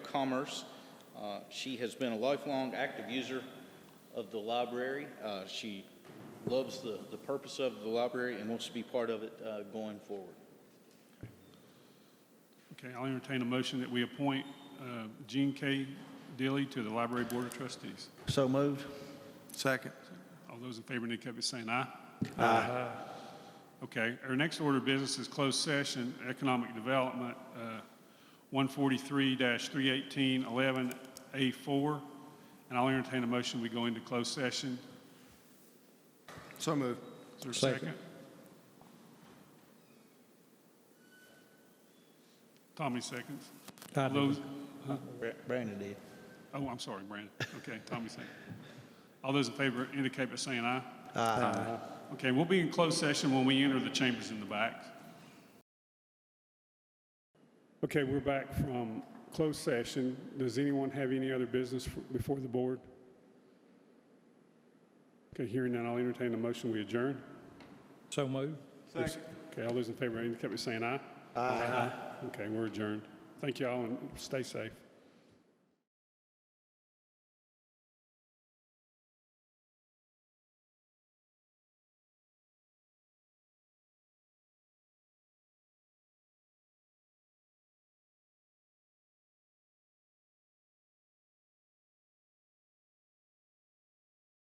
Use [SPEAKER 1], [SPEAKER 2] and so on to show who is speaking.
[SPEAKER 1] Commerce. Uh, She has been a lifelong active user of the library. Uh, She loves the, the purpose of the library and wants to be part of it uh, going forward.
[SPEAKER 2] Okay, I'll entertain a motion that we appoint uh, Gene K. Dilly to the Library Board of Trustees.
[SPEAKER 3] So moved.
[SPEAKER 4] Second.
[SPEAKER 2] All those in favor indicate by saying aye. Aye. Okay, our next order of business is closed session, economic development, uh, one forty-three three eighteen eleven A four. And I'll entertain a motion, we go into closed session.
[SPEAKER 4] So moved.
[SPEAKER 2] Is there a
[SPEAKER 3] Second.
[SPEAKER 2] second? Tommy seconds. Those-
[SPEAKER 3] Brandon did.
[SPEAKER 2] Oh, I'm sorry, Brandon. Okay, Tommy second. All those in favor indicate by saying aye.
[SPEAKER 3] Aye.
[SPEAKER 2] Okay, we'll be in closed session when we enter the chambers in the back. Okay, we're back from closed session. Does anyone have any other business f- before the board? Okay, hearing none, I'll entertain a motion, we adjourn.
[SPEAKER 3] So moved.
[SPEAKER 2] Okay, all those in favor indicate by saying aye. Aye. Okay, we're adjourned. Thank you all, and stay safe.